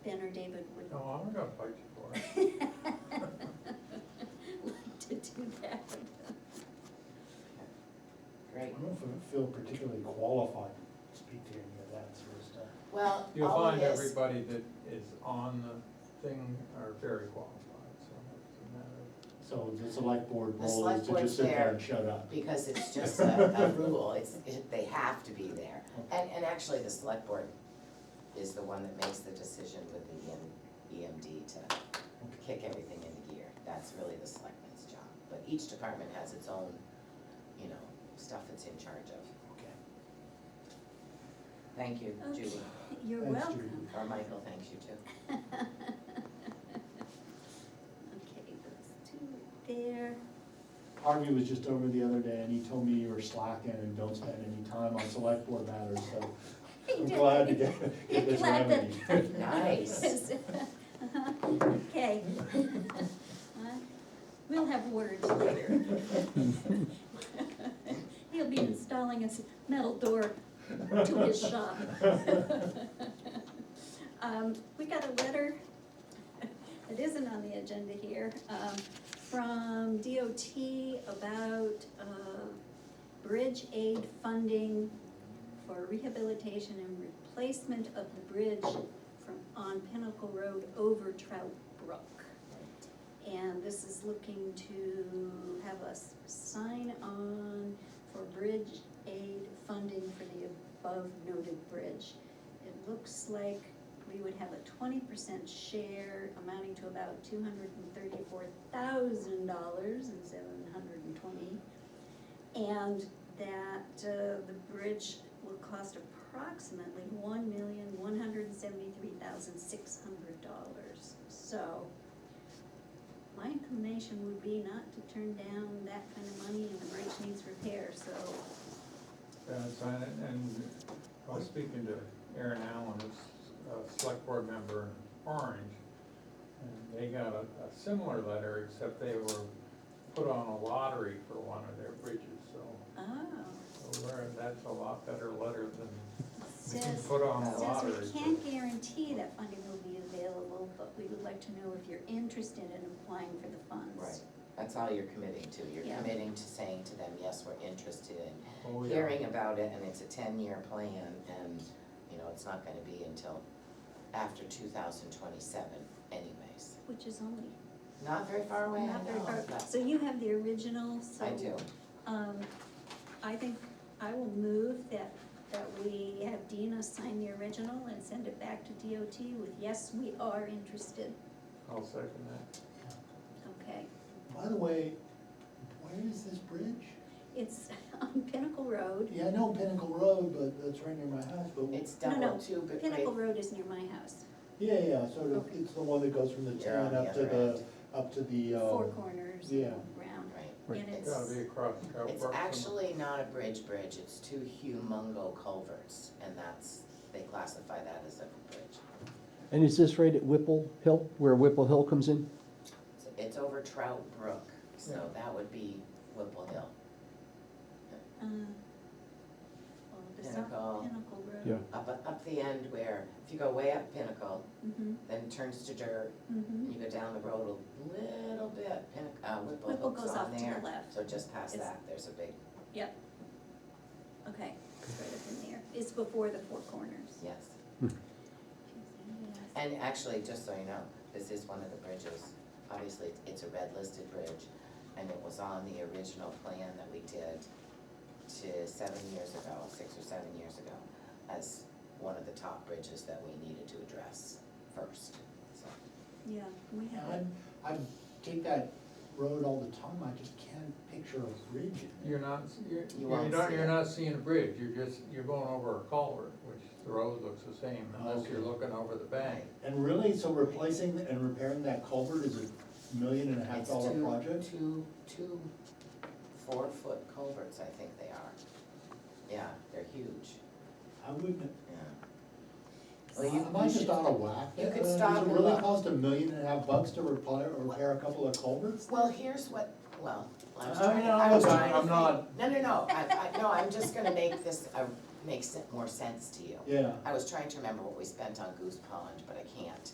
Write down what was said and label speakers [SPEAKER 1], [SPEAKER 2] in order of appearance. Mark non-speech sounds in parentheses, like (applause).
[SPEAKER 1] think that we're. (laughs)
[SPEAKER 2] Oh.
[SPEAKER 3] No, I'm gonna fight you for it.
[SPEAKER 1] Like to do that.
[SPEAKER 2] I
[SPEAKER 4] Great.
[SPEAKER 2] don't know if I feel particularly qualified to speak to any of that sort of stuff.
[SPEAKER 4] Well,
[SPEAKER 3] You'll
[SPEAKER 4] all of
[SPEAKER 3] find
[SPEAKER 4] this,
[SPEAKER 3] everybody that is on the thing are very qualified, so it's a matter
[SPEAKER 2] So the select board
[SPEAKER 4] The
[SPEAKER 2] role
[SPEAKER 4] select
[SPEAKER 2] is to just
[SPEAKER 4] board's
[SPEAKER 2] sit there
[SPEAKER 4] there.
[SPEAKER 2] and shut up.
[SPEAKER 4] because it's just a, a rule, it's, it- they have to be there. And, and actually, the select board is the one that makes the decision with the E EM, EMD to kick everything into gear. That's really the selectmen's job, but each department has its own, you know, stuff it's in charge of.
[SPEAKER 2] Okay.
[SPEAKER 4] Thank you,
[SPEAKER 1] Okay,
[SPEAKER 4] Julie.
[SPEAKER 1] You're
[SPEAKER 2] Thanks,
[SPEAKER 1] welcome.
[SPEAKER 4] Carmichael, thanks you too.
[SPEAKER 1] (laughs) Okay, those two there.
[SPEAKER 2] Harvey was just over the other day and he told me you were slacking and don't spend any time on select board matters, so
[SPEAKER 1] He
[SPEAKER 2] I'm
[SPEAKER 1] did.
[SPEAKER 2] glad to get,
[SPEAKER 1] (laughs) You're
[SPEAKER 2] get this
[SPEAKER 1] glad that-
[SPEAKER 2] remedy. (laughs)
[SPEAKER 1] (laughs)
[SPEAKER 4] Nice.
[SPEAKER 1] Okay. (laughs) Uh, We'll have words
[SPEAKER 2] (laughs)
[SPEAKER 1] later. (laughs) He'll be installing a s- metal door to his shop. (laughs) Um, we got a letter that isn't on the agenda here, um, from DOT about, uh, bridge aid funding for rehabilitation and replacement of the bridge from, on Pinnacle Road over Trout Brook. And this is looking to have us sign on for bridge aid funding for the above noted bridge. It looks like we would have a twenty percent share amounting to about two hundred and thirty-four thousand dollars and seven hundred and twenty. And that uh, the bridge will cost approximately one million, one hundred and seventy-three thousand, six hundred dollars. So my inclination would be not to turn down that kind of money and the bridge needs repair, so,
[SPEAKER 3] of, and sign it, and I was speaking to Aaron Allen, who's a select board member in Orange, and they got a, a similar letter, except they were put on a lottery for one of their bridges, so,
[SPEAKER 1] oh.
[SPEAKER 3] so we're- that's a lot better letter than
[SPEAKER 1] it
[SPEAKER 3] we can
[SPEAKER 1] Says,
[SPEAKER 3] put on a
[SPEAKER 1] says
[SPEAKER 3] lottery.
[SPEAKER 1] we can't guarantee that funding will be available, but we would like to know if you're interested in applying for the funds.
[SPEAKER 4] Right, that's all you're committing to. You're
[SPEAKER 1] Yeah.
[SPEAKER 4] committing to saying to them, yes, we're interested in
[SPEAKER 3] Oh, we are.
[SPEAKER 4] hearing about it, and it's a ten-year plan, and, you know, it's not gonna be until after two thousand twenty-seven anyways.
[SPEAKER 1] Which is only
[SPEAKER 4] Not very far away, I
[SPEAKER 1] not very
[SPEAKER 4] know,
[SPEAKER 1] far,
[SPEAKER 4] but
[SPEAKER 1] so you have the original, so.
[SPEAKER 4] Oh, I do.
[SPEAKER 1] Um, I think I will move that, that we have Dina sign the original and send it back to DOT with, yes, we are interested,
[SPEAKER 3] I'll second that.
[SPEAKER 1] okay?
[SPEAKER 2] (laughs) By the way, where is this bridge?
[SPEAKER 1] It's (laughs) on Pinnacle Road,
[SPEAKER 2] Yeah, I know Pinnacle Road, but that's right near my house, but,
[SPEAKER 4] It's
[SPEAKER 1] No, no,
[SPEAKER 4] double two, but right,
[SPEAKER 1] Pinnacle Road is near my house,
[SPEAKER 2] yeah, yeah, sort of,
[SPEAKER 1] Okay.
[SPEAKER 2] it's the one that goes from the
[SPEAKER 4] You're on
[SPEAKER 2] town
[SPEAKER 4] the
[SPEAKER 2] up to
[SPEAKER 4] other
[SPEAKER 2] the, up to the, um.
[SPEAKER 1] four corners,
[SPEAKER 2] yeah.
[SPEAKER 1] round,
[SPEAKER 4] right.
[SPEAKER 1] and it's,
[SPEAKER 3] Gotta be across. Trout
[SPEAKER 4] It's
[SPEAKER 3] Brook somewhere.
[SPEAKER 4] actually not a bridge bridge, it's two humongo culverts, and that's, they classify that as a bridge.
[SPEAKER 5] And is this right at Whipple Hill, where Whipple Hill comes in?
[SPEAKER 4] So It's over Trout Brook, so
[SPEAKER 3] Yeah.
[SPEAKER 4] that would be Whipple Hill.
[SPEAKER 1] uh, well, it's not
[SPEAKER 4] Pinnacle.
[SPEAKER 1] Pinnacle Road.
[SPEAKER 5] Yeah.
[SPEAKER 4] Up, up the end where, if you go way up Pinnacle,
[SPEAKER 1] Mm-hmm,
[SPEAKER 4] then it turns to dirt,
[SPEAKER 1] mm-hmm,
[SPEAKER 4] You go down the road a little bit, Pinnac- uh, Whipple
[SPEAKER 1] Whipple
[SPEAKER 4] Hook's
[SPEAKER 1] goes
[SPEAKER 4] on
[SPEAKER 1] off to the
[SPEAKER 4] there,
[SPEAKER 1] left.
[SPEAKER 4] so just past
[SPEAKER 1] It's-
[SPEAKER 4] that, there's a big,
[SPEAKER 1] okay, it's right up in there, it's before the four corners.
[SPEAKER 4] yes.
[SPEAKER 1] Yes.
[SPEAKER 4] And actually, just so you know, this is one of the bridges, obviously, it's- it's a red listed bridge, and it was on the original plan that we did to seven years ago, six or seven years ago, as one of the top bridges that we needed to address first, so.
[SPEAKER 1] Yeah, we
[SPEAKER 2] Yeah,
[SPEAKER 1] have, it.
[SPEAKER 2] I'm, I'm, take that road all the time, I just can't picture a bridge in
[SPEAKER 3] You're
[SPEAKER 2] it.
[SPEAKER 3] not, you're, you're
[SPEAKER 4] won't
[SPEAKER 3] not,
[SPEAKER 4] see
[SPEAKER 3] you're
[SPEAKER 4] it.
[SPEAKER 3] not seeing a bridge, you're just, you're going over a culvert, which the road looks the same unless you're
[SPEAKER 2] Okay.
[SPEAKER 3] looking over the bank.
[SPEAKER 2] And really, so replacing and repairing that culvert is a million and a half
[SPEAKER 4] It's
[SPEAKER 2] dollar
[SPEAKER 4] two-
[SPEAKER 2] project?
[SPEAKER 4] Two, two four-foot culverts, I think they are. Yeah, they're huge,
[SPEAKER 2] I wouldn't,
[SPEAKER 4] yeah. Well, you-
[SPEAKER 2] am I
[SPEAKER 4] you
[SPEAKER 2] just
[SPEAKER 4] should-
[SPEAKER 2] out of whack?
[SPEAKER 4] you could
[SPEAKER 2] Uh,
[SPEAKER 4] stop
[SPEAKER 2] Does
[SPEAKER 4] and
[SPEAKER 2] it really
[SPEAKER 4] look.
[SPEAKER 2] cost a million and a half bucks to repair, or repair a couple of culverts?
[SPEAKER 4] Well, here's what, well, I was
[SPEAKER 2] I mean,
[SPEAKER 4] trying,
[SPEAKER 2] I
[SPEAKER 4] I was
[SPEAKER 2] was-
[SPEAKER 4] trying to
[SPEAKER 2] I'm
[SPEAKER 4] think-
[SPEAKER 2] not-
[SPEAKER 4] No, no, no, I, I, no, I'm just gonna make this, uh, make sen- more sense to you.
[SPEAKER 2] Yeah,
[SPEAKER 4] I was trying to remember what we spent on Goose Pond, but I can't.